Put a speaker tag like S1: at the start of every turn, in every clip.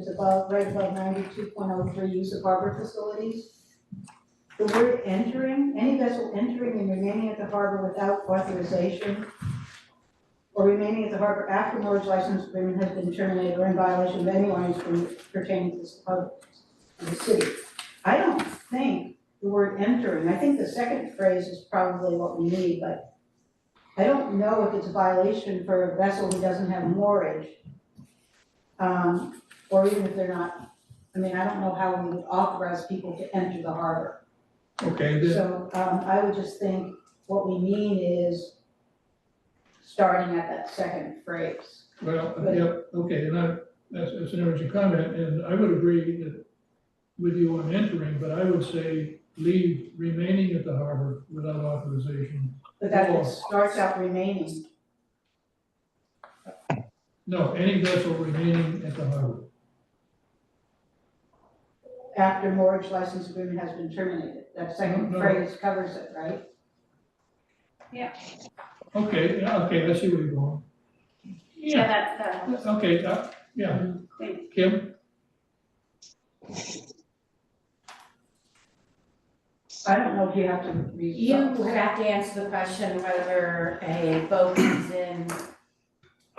S1: is above, right above ninety-two point oh three, use of harbor facilities. The word entering, any vessel entering and remaining at the harbor without authorization or remaining at the harbor after mortgage license agreement has been terminated or in violation of any ordinance pertaining to this harbor of the city. I don't think the word entering, I think the second phrase is probably what we need, but I don't know if it's a violation for a vessel who doesn't have moorage. Um, or even if they're not, I mean, I don't know how we would authorize people to enter the harbor.
S2: Okay, then,
S1: So, um, I would just think what we mean is starting at that second phrase.
S2: well, yep, okay, and I, that's, that's an urgent comment, and I would agree that with you on entering, but I would say leave remaining at the harbor without authorization.
S1: But that it starts out remaining,
S2: No, any vessel remaining at the harbor.
S1: after mortgage license agreement has been terminated. That second
S2: No, no.
S1: phrase covers it, right?
S2: Okay, yeah, okay, I see where you're going.
S3: Yeah,
S2: Yeah,
S3: that, that helps,
S2: okay, uh, yeah,
S3: thanks.
S2: Kim,
S1: I don't know if you have to read.
S4: You have to answer the question whether a boat comes in,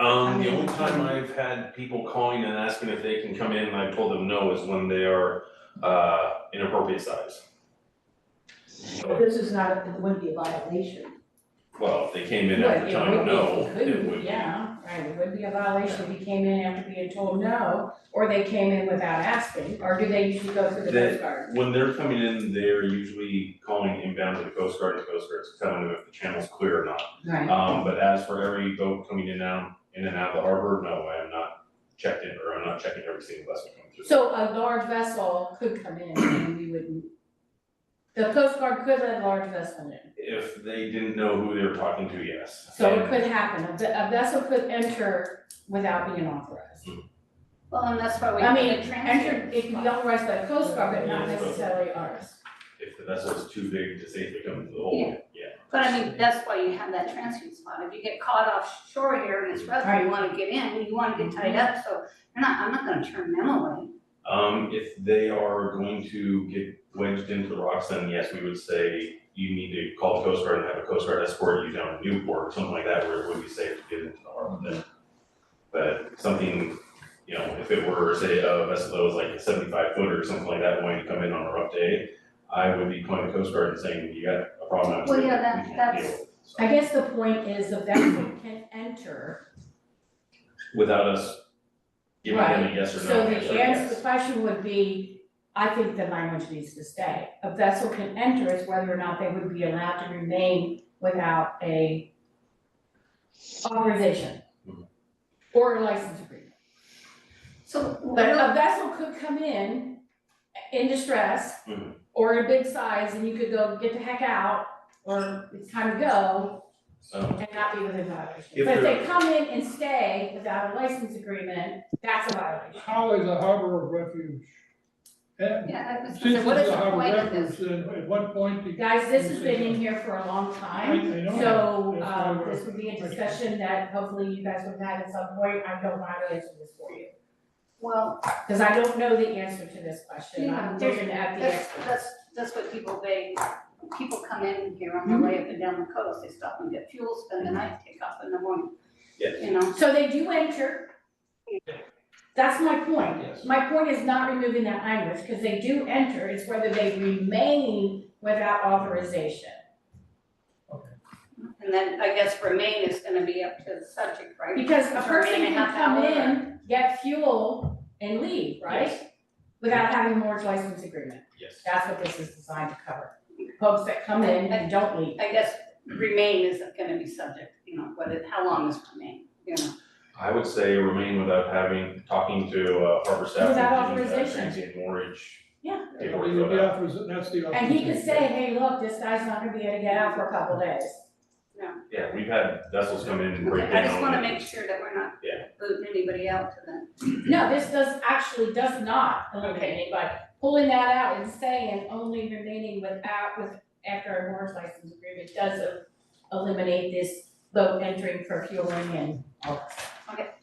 S5: Um, the
S1: I mean,
S5: only time
S1: um,
S5: I've had people calling and asking if they can come in and I told them no is when they are, uh, inappropriate size.
S1: But
S5: So,
S1: This is not, it wouldn't be a violation.
S5: well, if they came in
S4: Well,
S5: at the
S4: it
S5: time,
S4: would be
S5: no,
S4: if
S5: it would
S4: he
S5: be.
S4: couldn't, yeah, right, it would be a violation if he came in after being told no, or they came in without asking, or do they usually go through the
S5: They-
S4: Coast Guard?
S5: When they're coming in, they're usually calling inbound to the Coast Guard and Coast Guard's telling them if the channel's clear or not.
S4: Right.
S5: Um, but as for every boat coming in now, in and out of the harbor, no, I am not checked in, or I'm not checking every single vessel coming through.
S4: So a large vessel could come in and we wouldn't, the Coast Guard could let a large vessel in,
S5: If they didn't know who they were talking to, yes.
S4: so it
S5: And-
S4: could happen, a ve- a vessel could enter without being authorized.
S3: Well, and that's why we
S4: I
S3: have
S4: mean,
S3: the transfer.
S4: Entered, it could be authorized by the Coast Guard, but not necessarily ours.
S5: if the vessel is too big to safely come into the hole, yeah.
S3: But I mean, that's why you have that transfer spot, if you get caught offshore here and it's rough, and you wanna get in, you wanna get tied up, so you're not, I'm not gonna turn them away.
S5: Um, if they are going to get wedged into the rocks, then yes, we would say you need to call the Coast Guard and have a Coast Guard escort you down to Newport or something like that where it would be safe to get into the harbor then. But something, you know, if it were, say, a vessel that was like a seventy-five footer or something like that wanting to come in on a rough day, I would be calling the Coast Guard and saying, you got a problem.
S3: Well, yeah, that-
S5: We can't
S3: that's-
S5: deal with it." So,
S4: I guess the point is the vessel can enter,
S5: Without us giving them a yes or no.
S4: so the
S5: answer, yes.
S4: answer, the question would be, I think the language needs to stay. A vessel can enter is whether or not they would be allowed to remain without a authorization or a license agreement.
S3: So,
S4: But a vessel could come in in distress
S5: Mhm.
S4: or in a big size and you could go get the heck out or it's time to go
S5: So-
S4: and not be within violation.
S5: If
S4: But if
S5: they're-
S4: they come in and stay without a license agreement, that's a violation.
S2: how is a harbor of refuge? Eh,
S3: yeah, I was gonna
S2: Since
S3: say, what is
S2: it's
S3: the
S2: a harbor
S3: point of
S2: of
S3: this?
S2: refuge, then at what point do you?
S4: Guys, this has been in here for a long time,
S2: I- I know.
S4: so,
S2: That's why
S4: um,
S2: we're-
S4: this would be a discussion that hopefully you guys would have at some point, I don't mind answering this for you.
S3: Well,
S4: Cause I don't know the answer to this question, I'm
S3: Yeah,
S4: looking at the
S3: that's,
S4: expert.
S3: that's, that's what people, they, people come in here on their way up and down the coast, they stop and get fuel, spend the night, take off in the morning.
S5: Yes.
S3: You know,
S4: So they do enter. That's my point,
S5: Yes.
S4: my point is not removing that language, cause they do enter, it's whether they remain without authorization.
S3: and then I guess remain is gonna be up to the subject, right?
S4: Because a person
S3: Remain a
S4: can
S3: half
S4: come
S3: hour.
S4: in, get fuel and leave, right?
S5: Yes.
S4: Without having a mortgage license agreement.
S5: Yes.
S4: That's what this is designed to cover. Folks that come in and don't leave.
S3: I guess remain is gonna be subject, you know, what it, how long is remain, you know?
S5: I would say remain without having, talking to uh, harbor staff.
S4: Without
S5: and, uh,
S4: authorization.
S5: Transient mortgage.
S4: Yeah.
S5: They
S2: Yeah,
S5: were
S2: the-
S5: about-
S2: the offers- that's the
S4: And he
S2: offers.
S4: could say, hey, look, this guy's not gonna be able to get out for a couple days.
S5: Yeah, we've had vessels come in and break down.
S3: I just wanna make sure that we're not
S5: Yeah.
S3: booting anybody out to that.
S4: No, this does, actually does not eliminate anybody. Pulling that out and saying only remaining without, with, after a mortgage license agreement does eliminate this boat entering for fueling and all that.
S3: Okay,